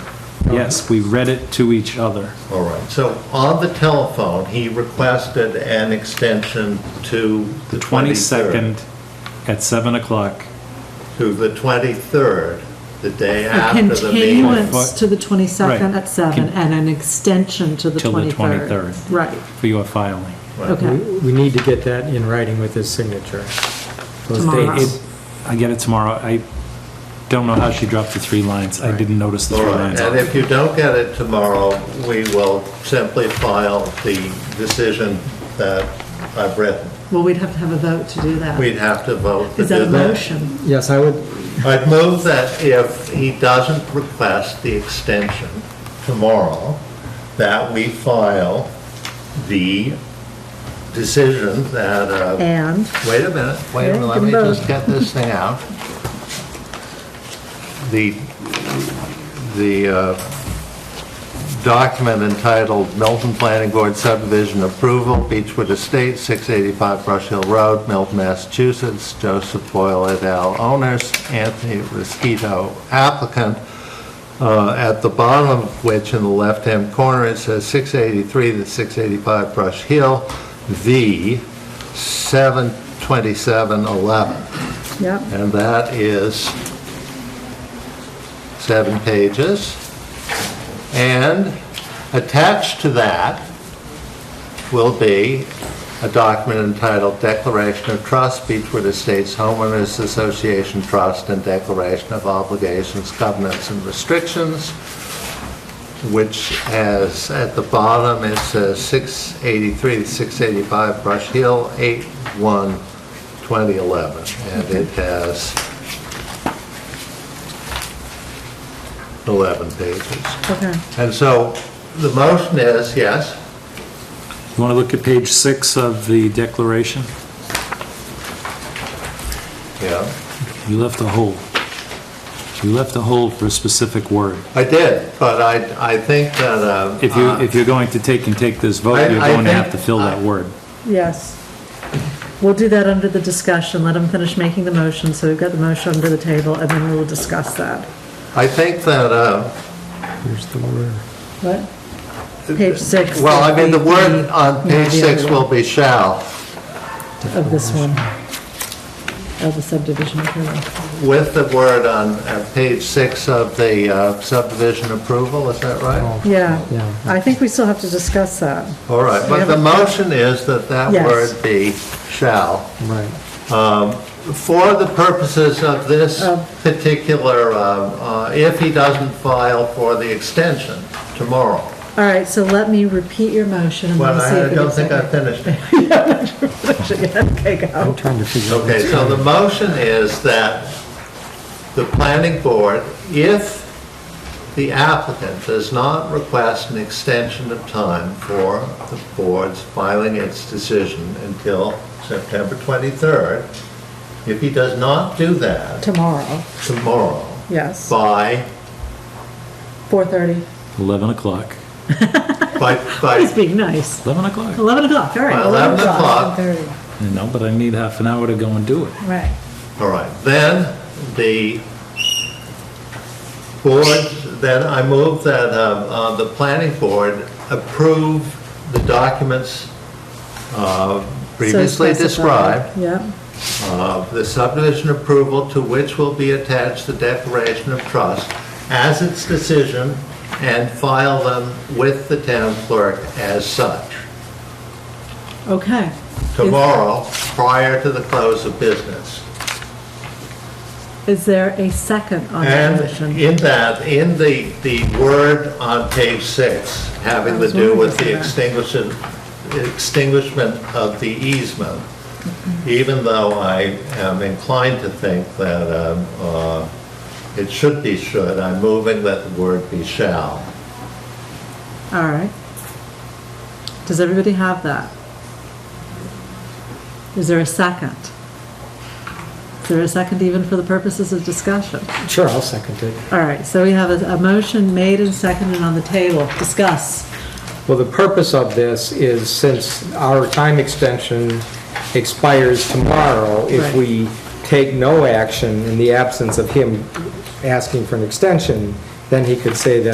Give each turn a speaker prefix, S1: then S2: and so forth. S1: Yes, we read it to each other.
S2: All right, so on the telephone, he requested an extension to
S1: The
S2: the 23rd.
S1: 22nd at 7 o'clock.
S2: To the 23rd, the day
S3: A
S2: after the meeting.
S3: continuance to the 22nd
S1: Right.
S3: at 7
S1: Con-
S3: and an extension to the 23rd.
S1: Till the 23rd.
S3: Right,
S1: for your filing.
S2: Right.
S3: okay.
S4: We we need to get that in writing with his signature. Those
S3: Tomorrow.
S4: dates.
S1: I get it tomorrow. I don't know how she dropped the three lines. I didn't notice the
S2: All
S1: three
S2: right,
S1: lines.
S2: and if you don't get it tomorrow, we will simply file the decision that I've written.
S3: Well, we'd have to have a vote to do that.
S2: We'd have to vote to do
S3: Is
S2: that.
S3: that a motion?
S4: Yes, I would,
S2: I'd move that if he doesn't request the extension tomorrow, that we file the decision that, uh,
S3: And,
S2: wait a minute, wait a minute, let me just get this thing out. The, the uh, document entitled Milton Planning Board Subdivision Approval, Beechwood Estates, 685 Brush Hill Road, Milton, Massachusetts, Joseph Boyle et al. owners, Anthony Rosquito applicant, uh, at the bottom of which, in the left-hand corner, it says 683 to 685 Brush Hill, the 72711.
S3: yep,
S2: And that is seven pages. And attached to that will be a document entitled Declaration of Trust, Beechwood Estates Homeowners Association Trust and Declaration of Obligations, Covenants, and Restrictions, which has, at the bottom, it says 683 to 685 Brush Hill, 8/1, 2011. And it has 11 pages.
S3: okay.
S2: And so the motion is, yes,
S1: You want to look at page six of the declaration?
S2: yeah,
S1: You left a hole. You left a hole for a specific word.
S2: I did, but I, I think that, uh,
S1: If you, if you're going to take and take this vote,
S2: I-
S1: you're
S2: I
S1: going to
S2: think-
S1: have to fill that word.
S3: Yes. We'll do that under the discussion, let him finish making the motion, so we've got the motion under the table, and then we will discuss that.
S2: I think that, uh,
S4: here's the word.
S3: What? Page six.
S2: well, I mean, the word on
S3: Yeah,
S2: page
S3: the
S2: six
S3: other one
S2: will be shall,
S3: Of this one, of the subdivision approval.
S2: with the word on uh, page six of the uh, subdivision approval, is that right?
S4: Yeah.
S3: Yeah, I think we still have to discuss that.
S2: All right, but the motion is that that
S3: Yes.
S2: word be shall.
S4: Right.
S2: For the purposes of this
S3: Of-
S2: particular, uh, uh, if he doesn't file for the extension tomorrow.
S3: All right, so let me repeat your motion and
S2: Well,
S3: we'll see if
S2: I
S3: we
S2: don't
S3: can
S2: think I
S3: second.
S2: finished it.
S3: Okay,
S4: I'm
S3: go.
S4: trying to figure out.
S2: Okay, so the motion is that the planning board, if the applicant does not request an extension of time for the board's filing its decision until September 23rd, if he does not do that
S3: Tomorrow,
S2: tomorrow
S3: yes,
S2: by,
S3: 4:30.
S1: 11 o'clock.
S2: by,
S3: He's
S2: by
S3: being nice.
S1: 11 o'clock?
S3: 11 o'clock, all right.
S2: By 11 o'clock.
S3: 11:30.
S1: No, but I need half an hour to go and do it.
S3: Right,
S2: All right, then the board, then I move that um, uh, the planning board approve the documents uh, previously
S3: So
S2: described,
S3: specified. Yeah,
S2: uh, the subdivision approval to which will be attached the declaration of trust as its decision and file them with the town clerk as such
S3: okay.
S2: tomorrow prior to the close of business.
S3: Is there a second on that
S2: And
S3: motion?
S2: in that, in the, the word on page six, having to do with the extinguishing, extinguishment of the easement,
S3: Mm-hmm.
S2: even though I am inclined to think that um, uh, it should be should, I'm moving that the word be shall.
S3: All right. Does everybody have that? Is there a second? Is there a second even for the purposes of discussion?
S4: Sure, I'll second it.
S3: All right, so we have a, a motion made and seconded on the table. Discuss.
S4: Well, the purpose of this is since our time extension expires tomorrow, if
S3: Right.
S4: we take no action in the absence of him asking for an extension, then he could say that